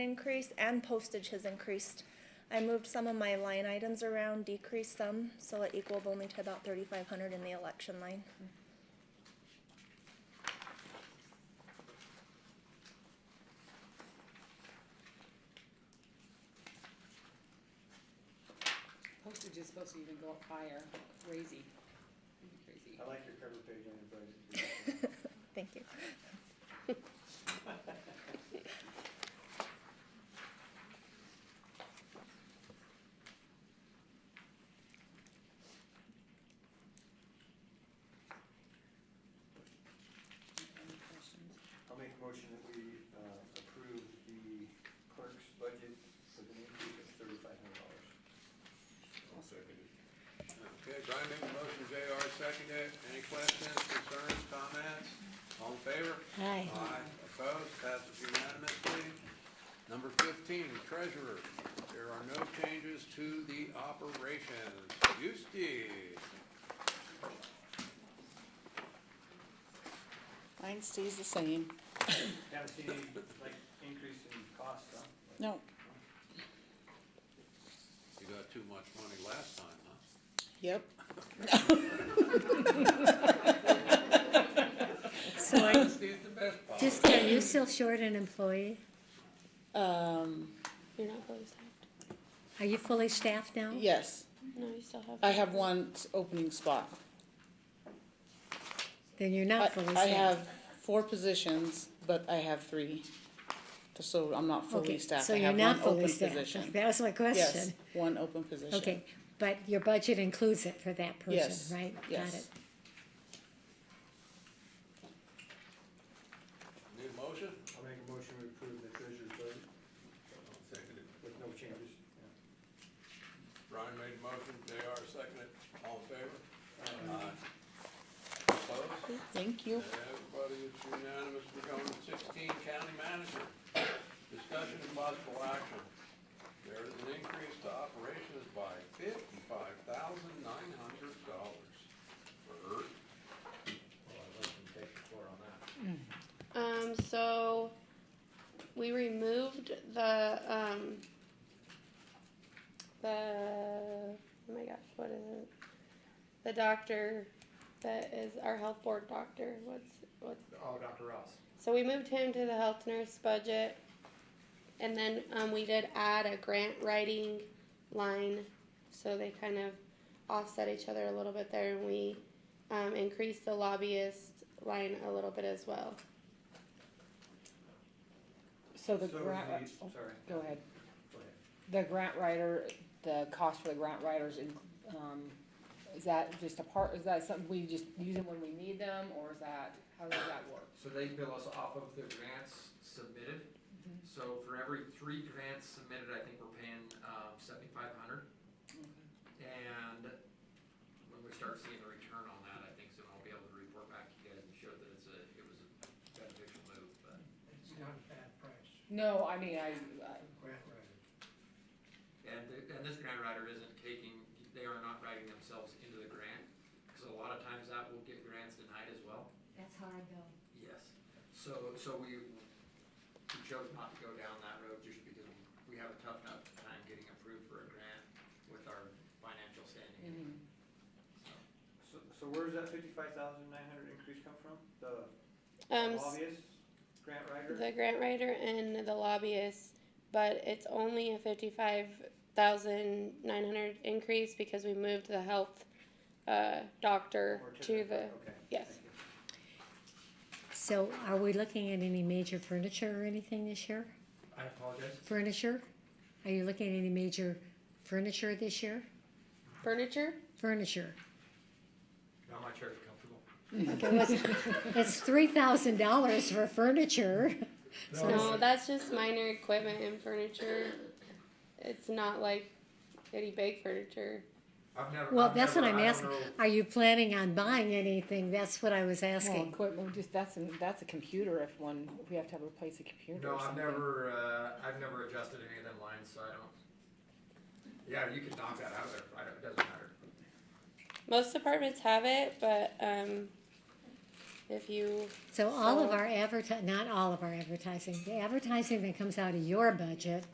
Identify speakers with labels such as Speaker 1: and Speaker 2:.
Speaker 1: increase and postage has increased. I moved some of my line items around, decreased some, so it equaled only to about thirty-five hundred in the election line.
Speaker 2: Postage is supposed to even go up higher, crazy, crazy.
Speaker 3: I like your cover page on your budget.
Speaker 1: Thank you.
Speaker 2: Any questions?
Speaker 3: I'll make a motion that we uh, approve the clerk's budget with an increase of thirty-five hundred dollars.
Speaker 4: I'll second it. Okay, Brian made the motion, JR seconded. it. Any questions, concerns, comments? All in favor?
Speaker 5: Aye.
Speaker 4: Aye. Opposed? Passes unanimously. Number fifteen, treasurer. There are no changes to the operations. Eustace,
Speaker 5: Mine stays the same.
Speaker 3: Haven't seen any, like, increase in cost, huh?
Speaker 5: No,
Speaker 4: you got too much money last time, huh?
Speaker 5: yep.
Speaker 6: So are,
Speaker 4: Eustace the best policy.
Speaker 6: just, are you still short an employee?
Speaker 5: Um,
Speaker 7: You're not fully staffed.
Speaker 6: Are you fully staffed now?
Speaker 5: yes,
Speaker 7: No, you still have.
Speaker 5: I have one s- opening spot.
Speaker 6: Then you're
Speaker 5: I,
Speaker 6: not fully staffed.
Speaker 5: I have four positions, but I have three. So I'm not fully
Speaker 6: Okay,
Speaker 5: staffed.
Speaker 6: So
Speaker 5: I
Speaker 6: you're
Speaker 5: have
Speaker 6: not
Speaker 5: one
Speaker 6: fully
Speaker 5: open
Speaker 6: staffed.
Speaker 5: position.
Speaker 6: That was my
Speaker 5: Yes,
Speaker 6: question.
Speaker 5: one open position.
Speaker 6: Okay, but your budget includes it for that
Speaker 5: Yes,
Speaker 6: person, right?
Speaker 5: yes.
Speaker 6: Got it.
Speaker 4: Need a motion?
Speaker 3: I'll make a motion to approve the treasurer's budget
Speaker 4: I'll second it.
Speaker 3: with no changes. Yeah.
Speaker 4: Brian made the motion, JR seconded. it. All in favor? Aye. Opposed?
Speaker 5: Thank you.
Speaker 4: Everybody is unanimous, we're going to sixteen, county manager. Discussion and possible action. There is an increase to operations by fifty-five thousand nine hundred dollars for earth.
Speaker 3: Well, I'd like to take the floor on that.
Speaker 7: Um, so we removed the, um, the, oh my gosh, what is it? The doctor that is our health board doctor. What's, what's,
Speaker 3: Oh, Dr. Ross.
Speaker 7: so we moved him to the health nurse budget. And then, um, we did add a grant writing line. So they kind of offset each other a little bit there and we, um, increased the lobbyist line a little bit as well.
Speaker 5: So the
Speaker 3: So is
Speaker 5: grant, oh,
Speaker 3: the- Sorry,
Speaker 5: go ahead.
Speaker 3: go ahead.
Speaker 5: The grant writer, the cost for the grant writers, in- um, is that just a part, is that something we just use them when we need them, or is that, how does that work?
Speaker 8: So they bill us off of the grants submitted. So for every three grants submitted, I think we're paying um, seventy-five hundred. And when we start seeing the return on that, I think soon I'll be able to report back to you guys and show that it's a, it was a beneficial move, but.
Speaker 9: It's not a bad price,
Speaker 5: No, I mean, I, I-
Speaker 9: grant writer.
Speaker 8: And, th- and this grant writer isn't taking, they are not writing themselves into the grant, because a lot of times that will get grants denied as well.
Speaker 6: That's how I go.
Speaker 8: Yes, so, so we, we chose not to go down that road just because we have a tough enough time getting approved for a grant with our financial standing.
Speaker 3: So, so where does that fifty-five thousand nine hundred increase come from? The
Speaker 7: Um, s-
Speaker 3: lobbyist, grant writer?
Speaker 7: the grant writer and the lobbyist, but it's only a fifty-five thousand nine hundred increase because we moved the health, uh, doctor
Speaker 3: Or
Speaker 7: to the,
Speaker 3: Okay.
Speaker 7: yes.
Speaker 3: Thank you.
Speaker 6: So are we looking at any major furniture or anything this year?
Speaker 8: I apologize?
Speaker 6: Furniture? Are you looking at any major furniture this year?
Speaker 7: furniture.
Speaker 6: Furniture.
Speaker 8: No, my chair is comfortable.
Speaker 6: Okay, what's, it's three thousand dollars for furniture.
Speaker 7: No, that's just minor equipment and furniture. It's not like any big furniture.
Speaker 8: I've never.
Speaker 6: Mm-hmm. Well,
Speaker 8: I've
Speaker 6: that's what
Speaker 8: never-
Speaker 6: I'm
Speaker 8: I don't
Speaker 6: asking.
Speaker 8: know-
Speaker 6: Are you planning on buying anything? That's what I was
Speaker 5: Well,
Speaker 6: asking.
Speaker 5: equipment, just, that's, an- that's a computer if one, if we have to have replace a computer
Speaker 8: No,
Speaker 5: or
Speaker 8: I've
Speaker 5: something.
Speaker 8: never, uh, I've never adjusted any of them lines, so I don't. Yeah, you can knock that out of there, I don't, it doesn't matter.
Speaker 7: Most departments have it, but, um, if you
Speaker 6: So all of
Speaker 7: So-
Speaker 6: our adverti, not all of our advertising, the advertising that comes out of your budget